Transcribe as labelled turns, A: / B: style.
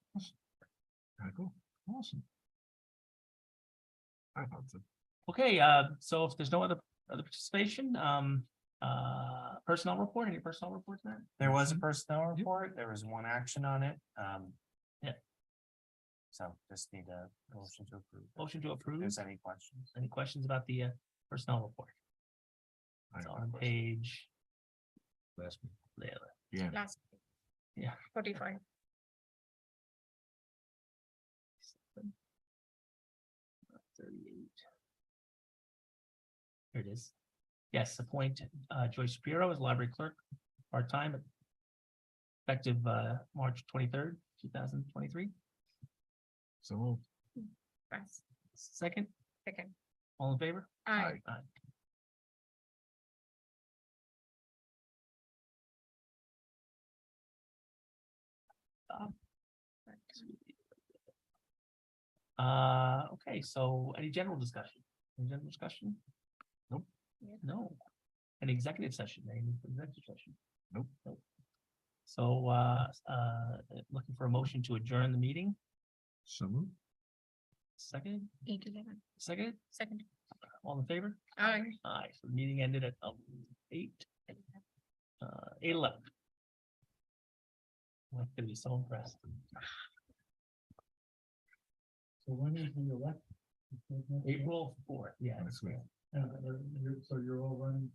A: Alright, cool. Awesome. I thought so.
B: Okay, uh, so if there's no other, other participation, um, uh, personnel report, any personnel reports there?
C: There was a
B: Mm-hmm.
C: personnel report, there was one action on it, um.
B: Yeah.
C: So just need a motion to approve.
B: Motion to
C: If
B: approve,
C: there's any questions.
B: any questions about the uh, personnel report?
A: I
B: It's
A: have
B: on
A: a question.
B: page,
A: Last one.
B: yeah,
A: Yeah,
D: last.
B: Yeah.
D: Forty-five.
B: thirty-eight. Here it is. Yes, appoint uh, Joyce Shapiro as library clerk, part-time. Effective uh, March twenty-third, two thousand twenty-three.
A: so moved.
D: Yes,
B: Second,
D: second.
B: all in favor?
D: I,
B: Aye. Uh, okay, so any general discussion? Any general discussion?
A: Nope.
D: Yeah.
B: No. An executive session, any executive session?
A: Nope.
B: So, uh, uh, looking for a motion to adjourn the meeting,
A: So moved.
B: second,
D: eight eleven,
B: second,
D: second.
B: all in favor?
D: I.
B: Aye, so the meeting ended at um, eight, uh, eight eleven. I'm gonna be so impressed.
E: So when is the elect?
B: April fourth, yeah.
A: Next week.
E: And, uh, you're- so you're all running